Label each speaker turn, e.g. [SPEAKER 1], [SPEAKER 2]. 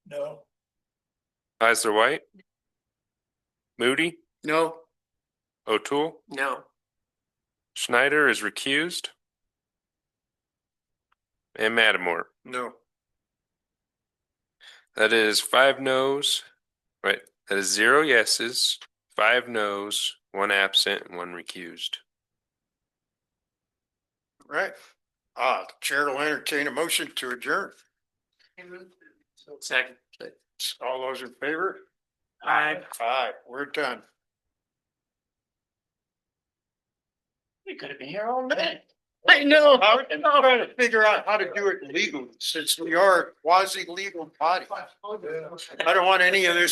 [SPEAKER 1] No.
[SPEAKER 2] Kaiser White. Moody,
[SPEAKER 3] No.
[SPEAKER 2] O'Toole,
[SPEAKER 3] No.
[SPEAKER 2] Schneider is recused. And Matamore.
[SPEAKER 3] No.
[SPEAKER 2] That is five noes, right? That is zero yeses, five noes, one absent, and one recused.
[SPEAKER 3] Right. Uh, Chair will entertain a motion to adjourn.
[SPEAKER 4] Second.
[SPEAKER 3] All those in favor?
[SPEAKER 4] Aye.
[SPEAKER 3] Aye, we're done.
[SPEAKER 4] We could have been here all night.
[SPEAKER 3] I know. I'm trying to figure out how to do it legally, since we are a quasi-legal body. I don't want any of this